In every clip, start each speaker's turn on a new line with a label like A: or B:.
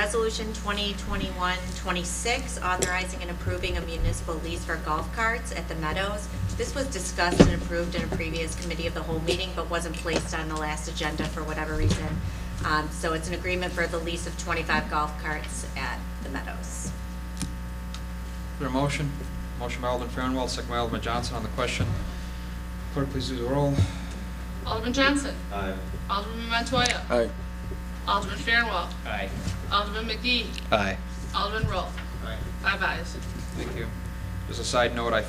A: Resolution 2021-26, authorizing and approving a municipal lease for golf carts at the Meadows. This was discussed and approved in a previous committee of the whole meeting, but wasn't placed on the last agenda for whatever reason. Um, So it's an agreement for the lease of 25 golf carts at the Meadows.
B: Is there a motion? Motion by Alderman Farnwell, second by Alderman Johnson on the question. Clerk, please do the roll.
C: Alderman Johnson.
D: Aye.
C: Alderman Montoya.
E: Aye.
C: Alderman Fairwell.
D: Aye.
C: Alderman McGee.
E: Aye.
C: Alderman Roll. Five ayes.
B: Thank you. Just a side note, I,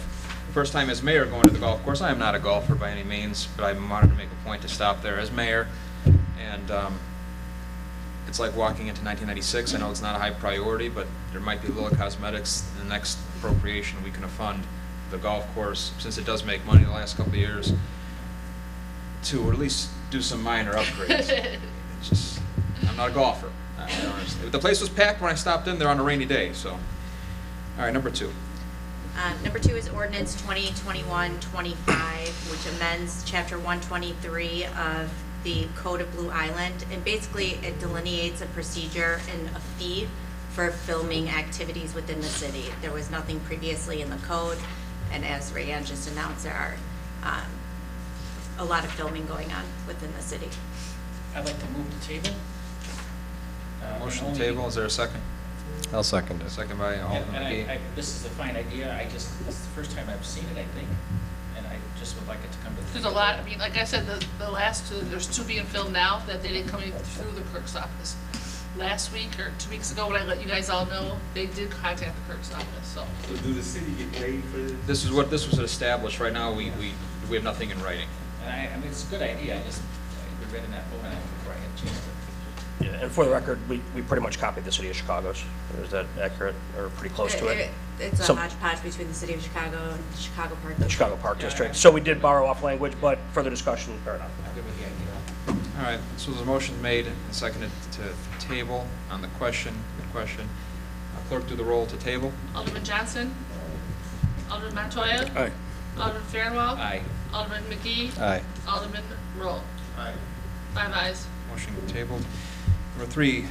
B: first time as mayor going to the golf course, I am not a golfer by any means, but I wanted to make a point to stop there as mayor. And um, it's like walking into 1996, I know it's not a high priority, but there might be little cosmetics, the next appropriation, we can fund the golf course, since it does make money the last couple of years, to at least do some minor upgrades. It's just, I'm not a golfer. I- I honestly- The place was packed when I stopped in there on a rainy day, so. All right, number two.
A: Um, Number two is ordinance 2021-25, which amends Chapter 123 of the Code of Blue Island. And basically, it delineates a procedure and a fee for filming activities within the city. There was nothing previously in the code, and as Rayanne just announced, there are um, a lot of filming going on within the city.
F: I'd like to move the table. Uh,
B: Motion
F: and
B: to
F: only-
B: table, is there a second?
E: I'll second it.
B: Second by
F: And
B: Alderman
F: and I, I,
B: McGee.
F: this is a fine idea, I just, this is the first time I've seen it, I think, and I just would like it to come to the.
C: There's a lot, I mean, like I said, the, the last two, there's two being filled now that they didn't come in through the clerk's office. Last week or two weeks ago, when I let you guys all know, they did contact the clerk's office, so.
D: So do the city get paid for this?
B: This is what, this was established, right now, we, we, we have nothing in writing.
F: And I, I mean, it's a good idea, I just, I read in that book and I, before I had a chance to.
G: Yeah, and for the record, we, we pretty much copied the city of Chicago's. Is that accurate or pretty close to it?
A: It's a
G: Some-
A: hodgepodge between the city of Chicago and Chicago Park.
G: The Chicago Park District. So we did borrow off language, but further discussion, fair enough.
F: I'm good with the idea.
B: All right, so there's a motion made and seconded to table on the question, good question. Uh, Clerk, do the roll to table.
C: Alderman Johnson. Alderman Montoya.
E: Aye.
C: Alderman Fairwell.
B: Aye.
C: Alderman McGee.
E: Aye.
C: Alderman Roll.
D: Aye.
C: Five ayes.
B: Motion tabled. Number three,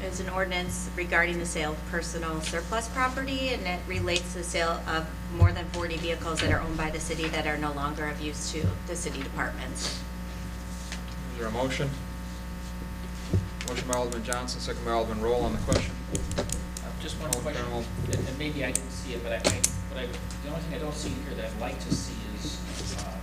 A: It's an ordinance regarding the sale of personal surplus property, and it relates to the sale of more than 40 vehicles that are owned by the city that are no longer of use to the city departments.
B: is there a motion? Motion by Alderman Johnson, second by Alderman Roll on the question.
F: Uh, Just one
B: Alderman
F: question,
B: Fairwell.
F: and and maybe I didn't see it, but I, I- but I, the only thing I don't see here that I'd like to see is um,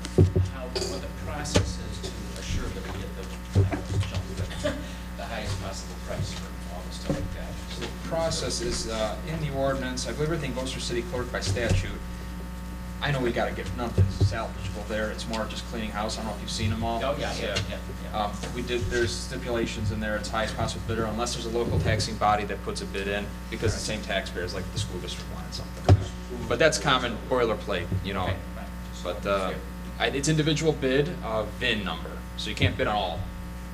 F: how, what the process is to assure that we get the, I don't know, jump, but the highest possible price for all the stuff like that.
B: So The process is uh, in the ordinance, I believe everything goes through city clerk by statute. I know we gotta get, nothing's salvageable there, it's more just cleaning house, I don't know if you've seen them all.
F: Oh, yeah, yeah, yeah, yeah.
B: Um, We did, there's stipulations in there, it's highest possible bidder, unless there's a local taxing body that puts a bid in, because the same taxpayers, like the school district wanted something. But that's common boilerplate, you know,
F: Right, right. Just
B: but
F: wanted to
B: uh,
F: hear.
B: I- it's individual bid, uh, VIN number, so you can't bid on all.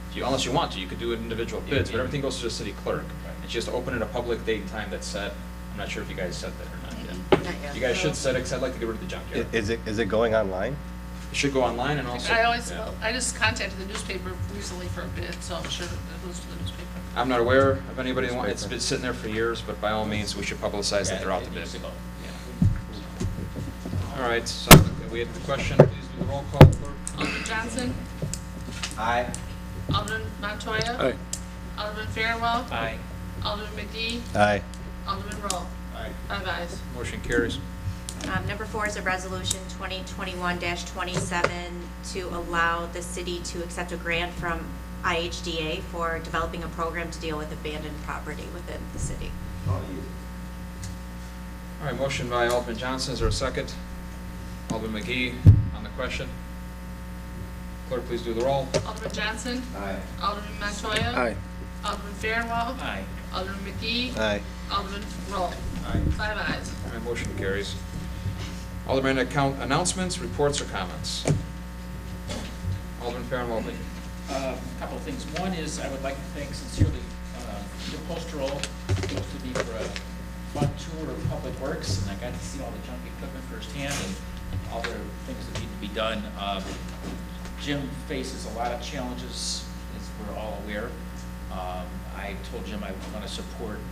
B: If you- Unless you want to, you could do it individual
F: Yeah,
B: bids, but
F: yeah.
B: everything goes to the city clerk. And she has to open at a public date and time that's set, I'm not sure if you guys set that or not yet. You guys should set it, 'cause I'd like to get rid of the junkyard. It
E: Is it, is it going online?
B: should go online and also.
C: I always,
B: Yeah.
C: I just contacted the newspaper recently for a bid, so I'm sure it goes to the newspaper.
B: I'm not aware of anybody, that wa- it's been sitting there for years, but by all means, we should publicize that they're out to
F: Yeah,
B: bid.
F: it needs to go, yeah.
B: All right, so we had the question, please do the roll call, clerk.
C: Alderman Johnson.
D: Aye.
C: Alderman Montoya.
E: Aye.
C: Alderman Fairwell.
F: Aye.
C: Alderman McGee.
E: Aye.
C: Alderman Roll.
D: Aye.
C: Five ayes.
B: Motion carries.
A: Um, Number four is a resolution 2021-27 to allow the city to accept a grant from IHDA for developing a program to deal with abandoned property within the city.
D: Oh, yeah.
B: All right, motion by Alderman Johnson, is there a second? Alderman McGee on the question. Clerk, please do the roll.
C: Alderman Johnson.
D: Aye.
C: Alderman Montoya.
E: Aye.
C: Alderman Fairwell.
F: Aye.
C: Alderman McGee.
E: Aye.
C: Alderman Roll.
D: Aye.
C: Five ayes.
B: All right, motion carries. Alderman account announcements, reports, or comments? Alderman Farnwell, please.
F: uh, a couple of things. One is, I would like to thank sincerely uh, Jim Postroll, who hosted me for a fun tour of Public Works, and I got to see all the junk equipment firsthand and all the things that need to be done. Um, Jim faces a lot of challenges, as we're all aware. Um, I told Jim I want to support